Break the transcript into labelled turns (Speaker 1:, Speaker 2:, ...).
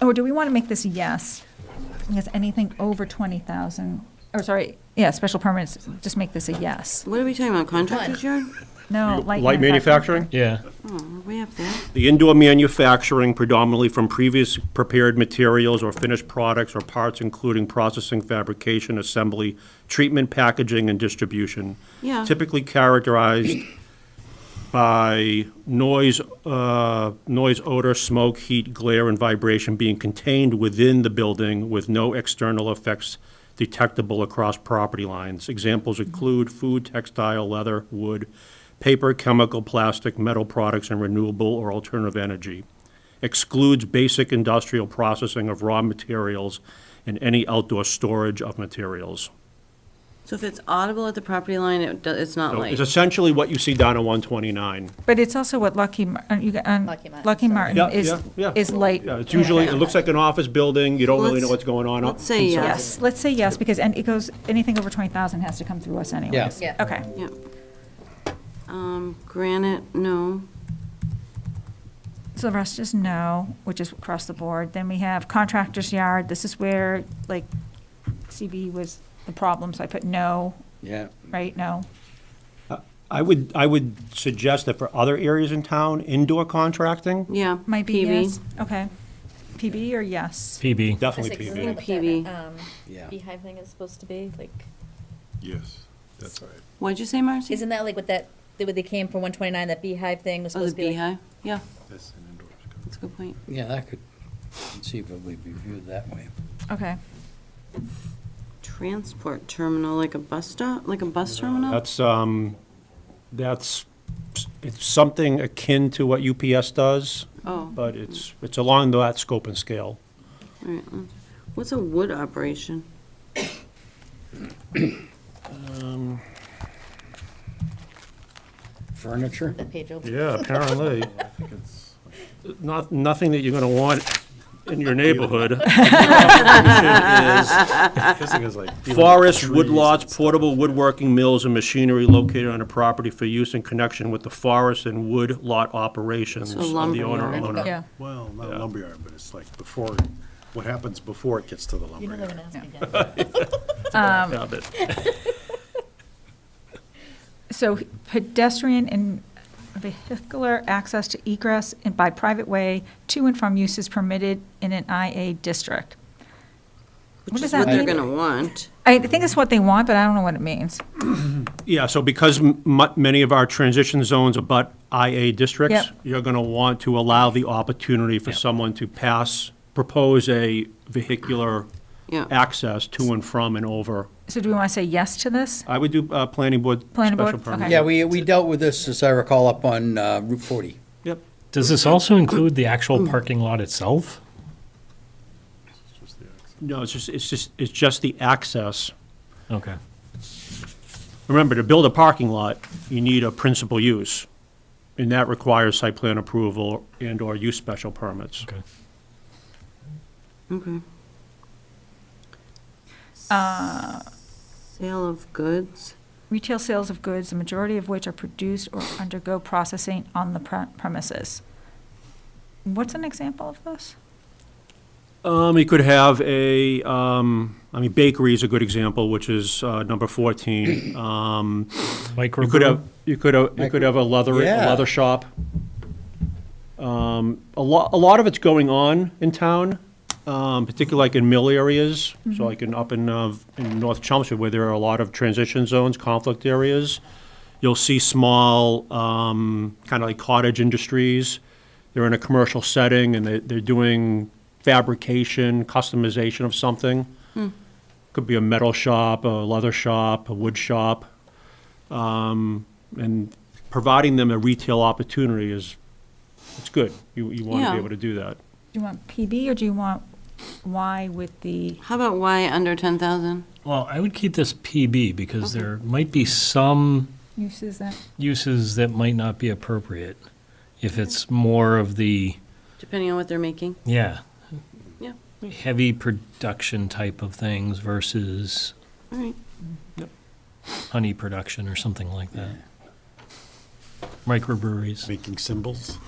Speaker 1: or Oh, do we want to make this a yes? Because anything over 20,000, or sorry, yeah, special permits, just make this a yes.
Speaker 2: What are we talking about, contractor's yard?
Speaker 1: No, light.
Speaker 3: Light manufacturing?
Speaker 4: Yeah.
Speaker 2: Oh, we have that.
Speaker 3: The indoor manufacturing predominantly from previous prepared materials or finished products or parts, including processing, fabrication, assembly, treatment, packaging, and distribution.
Speaker 2: Yeah.
Speaker 3: Typically characterized by noise, uh, noise, odor, smoke, heat, glare, and vibration being contained within the building with no external effects detectable across property lines. Examples include food, textile, leather, wood, paper, chemical, plastic, metal products, and renewable or alternative energy. Excludes basic industrial processing of raw materials and any outdoor storage of materials.
Speaker 2: So if it's audible at the property line, it, do- it's not
Speaker 3: So
Speaker 2: like,
Speaker 3: It's essentially what you see down in 129.
Speaker 1: But it's also what Lucky, Mar- uh, you got- uh,
Speaker 5: Lucky Martin,
Speaker 1: Lucky
Speaker 5: sorry.
Speaker 1: Martin
Speaker 3: Yeah,
Speaker 1: is,
Speaker 3: yeah, yeah.
Speaker 1: is light.
Speaker 3: Yeah, it's usually, it looks like an office building, you don't really know
Speaker 2: Let's-
Speaker 3: what's going on. up
Speaker 2: let's say uh,
Speaker 3: inside.
Speaker 1: Yes, let's say yes, because, and it goes, anything over 20,000 has to come through us anyways.
Speaker 5: Yeah.
Speaker 1: Okay.
Speaker 2: yeah. Um, granite, no.
Speaker 1: So the rest is no, which is across the board. Then we have contractor's yard. This is where, like, CB was the problem, so I put no,
Speaker 6: Yeah.
Speaker 1: right? No.
Speaker 3: I would, I would suggest that for other areas in town, indoor contracting,
Speaker 2: Yeah.
Speaker 1: Might be
Speaker 2: PV.
Speaker 1: yes. Okay. PB or yes?
Speaker 4: PB.
Speaker 3: definitely
Speaker 5: Essex is
Speaker 3: PV.
Speaker 5: what the,
Speaker 2: PV.
Speaker 5: um,
Speaker 6: Yeah.
Speaker 5: Beehive thing is supposed to be, like,
Speaker 7: Yes, that's right.
Speaker 2: What'd you say, Marcy?
Speaker 5: isn't that like what that, the- what they came from one twenty-nine, that beehive thing was
Speaker 2: Oh, the
Speaker 5: supposed to be like?
Speaker 2: beehive? Yeah,
Speaker 7: That's an indoor.
Speaker 2: that's a good point.
Speaker 6: Yeah, that could conceivably be viewed that way.
Speaker 1: Okay.
Speaker 2: Transport terminal, like a bus stop, like a bus terminal?
Speaker 3: That's, um, that's, it's something akin to what UPS does,
Speaker 2: Oh, all
Speaker 3: but it's, it's along that scope and scale.
Speaker 2: right. um, What's a wood operation?
Speaker 3: Um,
Speaker 6: Furniture?
Speaker 5: That page over.
Speaker 3: Yeah, apparently.
Speaker 7: I think it's,
Speaker 3: Not, nothing that you're gonna want in your neighborhood.
Speaker 7: kissing is like. dealing with
Speaker 3: Forests,
Speaker 7: trees and
Speaker 3: woodlots,
Speaker 7: stuff.
Speaker 3: portable woodworking mills, and machinery located on a property for use in connection with the forest and wood lot operations
Speaker 2: So
Speaker 3: of the owner or
Speaker 2: lumberyard.
Speaker 3: owner.
Speaker 1: Yeah.
Speaker 7: Well, not lumberyard, but it's like before, what happens before it gets to the
Speaker 5: You're never
Speaker 7: lumberyard.
Speaker 5: gonna ask me again.
Speaker 1: Um,
Speaker 3: Yeah, but-
Speaker 1: So pedestrian and vehicular access to egress and by private way to and from uses permitted in an IA district. What
Speaker 2: Which
Speaker 1: does
Speaker 2: is
Speaker 1: that
Speaker 2: what they're
Speaker 1: mean?
Speaker 2: gonna want.
Speaker 1: I think it's what they want, but I don't know what it means.
Speaker 3: Yeah, so because m- mu- many of our transition zones abut IA districts,
Speaker 1: Yep.
Speaker 3: you're going to want to allow the opportunity for someone to pass, propose a vehicular
Speaker 2: Yeah.
Speaker 3: access to and from and over.
Speaker 1: So do we want to say yes to this?
Speaker 3: I would do uh, planning board
Speaker 1: Planning board?
Speaker 3: special permit.
Speaker 1: Okay.
Speaker 6: Yeah, we, we dealt with this, as I recall, up on uh, Route 40.
Speaker 3: Yep.
Speaker 4: Does this also include the actual parking lot itself?
Speaker 7: It's just the access.
Speaker 3: No, it's just, it's just, it's just the access.
Speaker 4: Okay.
Speaker 3: Remember, to build a parking lot, you need a principal use, and that requires site plan approval and/or use special permits.
Speaker 4: Okay.
Speaker 2: Okay. Sale of goods.
Speaker 1: Uh, Retail sales of goods, the majority of which are produced or undergo processing on the pre- premises. What's an example of this?
Speaker 3: Um, you could have a, um, I mean, bakery is a good example, which is, uh, number fourteen. Um,
Speaker 4: Micro.
Speaker 3: you could have, you could have, you could have a leather, a
Speaker 6: Yeah.
Speaker 3: leather shop. Um, a lot, a lot of it's going on in town, um, particularly like in mill areas. So like in, up in, uh, in North Chelmsford, where there are a lot of transition zones, conflict areas. You'll see small, um, kind of like cottage industries. They're in a commercial setting and they, they're doing fabrication, customization of something. Could be a metal shop, a leather shop, a wood shop. Um, and providing them a retail opportunity is, it's good. You, you want to
Speaker 2: Yeah.
Speaker 3: be able to do that.
Speaker 1: Do you want PB or do you want Y with the,
Speaker 2: How about why under ten thousand?
Speaker 4: Well, I would keep this PB because there might be some
Speaker 1: uses that?
Speaker 4: uses that might not be appropriate if it's more of the,
Speaker 2: Depending on what they're making.
Speaker 4: yeah,
Speaker 2: Yeah.
Speaker 4: heavy production type of things versus
Speaker 2: All right.
Speaker 4: honey production or something like that. Microbreweries.
Speaker 7: Making symbols.